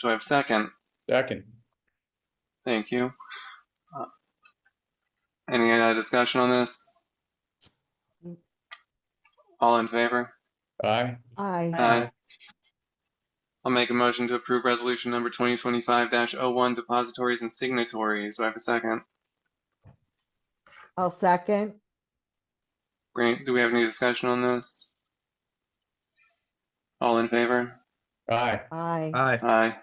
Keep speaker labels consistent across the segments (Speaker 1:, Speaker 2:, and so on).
Speaker 1: Do I have a second?
Speaker 2: Second.
Speaker 1: Thank you. Uh, Any uh, discussion on this? All in favor?
Speaker 2: Aye.
Speaker 3: Aye.
Speaker 1: Aye. I'll make a motion to approve resolution number 2025-01 depositories and signatories. Do I have a second?
Speaker 3: I'll second.
Speaker 1: Great. Do we have any discussion on this? All in favor?
Speaker 2: Aye.
Speaker 3: Aye.
Speaker 4: Aye.
Speaker 1: Aye.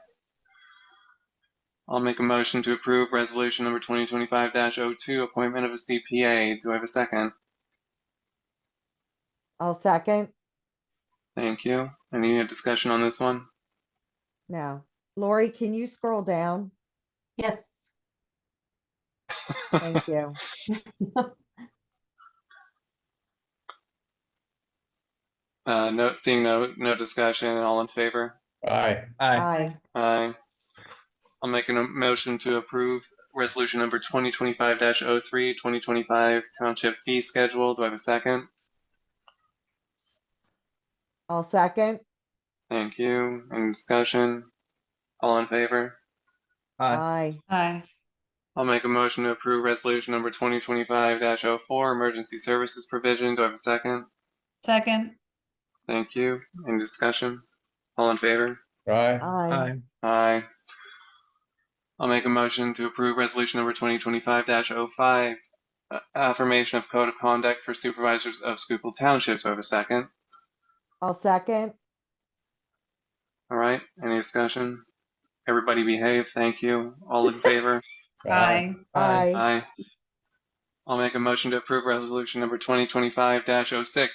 Speaker 1: I'll make a motion to approve resolution number 2025-02, appointment of a CPA. Do I have a second?
Speaker 3: I'll second.
Speaker 1: Thank you. Any discussion on this one?
Speaker 3: No. Lori, can you scroll down?
Speaker 5: Yes.
Speaker 3: Thank you.
Speaker 1: Uh, no, seeing no, no discussion, all in favor?
Speaker 2: Aye.
Speaker 4: Aye.
Speaker 3: Aye.
Speaker 1: Aye. I'll make a motion to approve resolution number 2025-03, 2025 township fee schedule. Do I have a second?
Speaker 3: I'll second.
Speaker 1: Thank you. Any discussion? All in favor?
Speaker 4: Aye.
Speaker 3: Aye.
Speaker 5: Aye.
Speaker 1: I'll make a motion to approve resolution number 2025-04, emergency services provision. Do I have a second?
Speaker 5: Second.
Speaker 1: Thank you. Any discussion? All in favor?
Speaker 2: Aye.
Speaker 3: Aye.
Speaker 4: Aye.
Speaker 1: Aye. I'll make a motion to approve resolution number 2025-05, uh, affirmation of code of conduct for supervisors of Schuylkill Township. Do I have a second?
Speaker 3: I'll second.
Speaker 1: All right, any discussion? Everybody behave. Thank you. All in favor?
Speaker 5: Aye.
Speaker 3: Aye.
Speaker 1: Aye. I'll make a motion to approve resolution number 2025-06,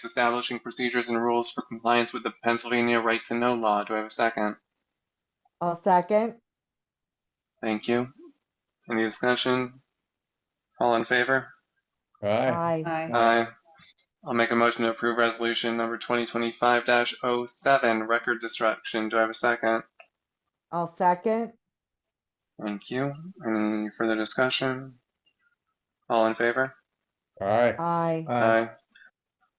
Speaker 1: establishing procedures and rules for compliance with the Pennsylvania Right to Know Law. Do I have a second?
Speaker 3: I'll second.
Speaker 1: Thank you. Any discussion? All in favor?
Speaker 2: Aye.
Speaker 3: Aye.
Speaker 5: Aye.
Speaker 1: Aye. I'll make a motion to approve resolution number 2025-07, record destruction. Do I have a second?
Speaker 3: I'll second.
Speaker 1: Thank you. Any further discussion? All in favor?
Speaker 2: Aye.
Speaker 3: Aye.
Speaker 4: Aye.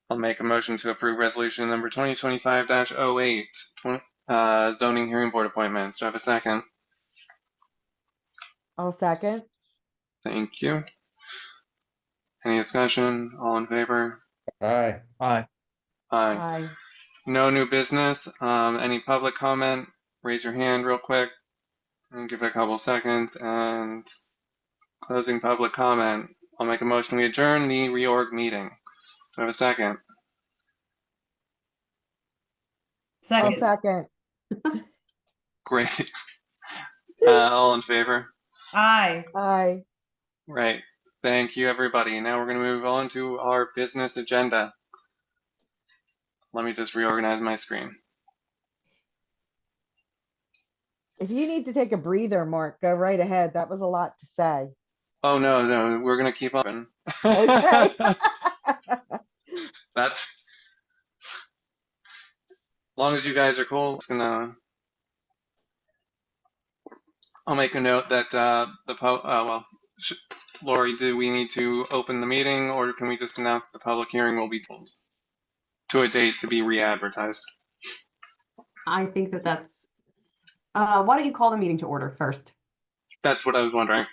Speaker 1: I'll make a motion to approve resolution number 2025-08, twen- uh, zoning hearing board appointments. Do I have a second?
Speaker 3: I'll second.
Speaker 1: Thank you. Any discussion? All in favor?
Speaker 2: Aye.
Speaker 4: Aye.
Speaker 1: Aye.
Speaker 3: Aye.
Speaker 1: No new business. Um, any public comment? Raise your hand real quick and give it a couple seconds and closing public comment. I'll make a motion. We adjourn the reorg meeting. Do I have a second?
Speaker 3: I'll
Speaker 5: Second.
Speaker 3: second.
Speaker 1: Great. Uh, all in favor?
Speaker 5: Aye.
Speaker 3: Aye.
Speaker 1: Right. Thank you, everybody. Now we're going to move on to our business agenda. Let me just reorganize my screen.
Speaker 3: If you need to take a breather, Mark, go right ahead. That was a lot to say.
Speaker 1: Oh, no, no, we're going to keep open.
Speaker 3: Okay.
Speaker 1: That's. Long as you guys are cool, it's gonna. I'll make a note that, uh, the po, uh, well, sh- Lori, do we need to open the meeting or can we just announce the public hearing will be told? To a date to be re-advertised.
Speaker 6: I think that that's, uh, why don't you call the meeting to order first?
Speaker 1: That's what I was wondering.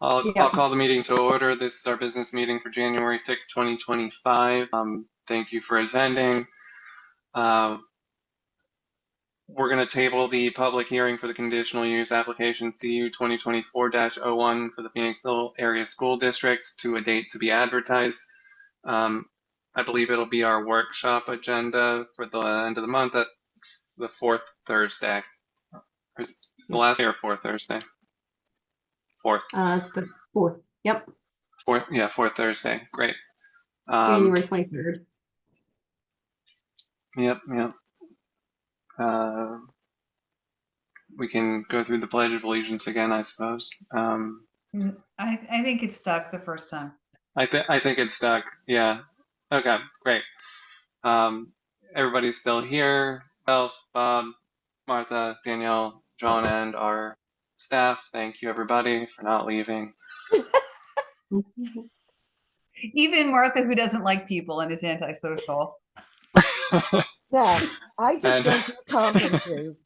Speaker 1: I'll,
Speaker 6: Yeah.
Speaker 1: I'll call the meeting to order. This is our business meeting for January 6, 2025. Um, thank you for attending. Uh, we're going to table the public hearing for the conditional use application CU 2024-01 for the Phoenixville Area School District to a date to be advertised. Um, I believe it'll be our workshop agenda for the end of the month at the fourth Thursday. Is is the last day or fourth Thursday? Fourth.
Speaker 6: Uh, it's the fourth, yep,
Speaker 1: Fourth, yeah, fourth Thursday. Great. Um,
Speaker 6: January twenty-third.
Speaker 1: yep, yep. Uh, we can go through the Pledge of Allegiance again, I suppose. Um,
Speaker 5: Mm, I, I think it stuck the first time.
Speaker 1: I think I think it's stuck. Yeah. Okay. Great. Um, everybody's still here. Elf, Bob, Martha, Danielle, John, and our staff. Thank you, everybody, for not leaving.
Speaker 5: Even Martha, who doesn't like people and is antisocial.
Speaker 3: Yeah, I just
Speaker 1: And-
Speaker 3: don't do conferences.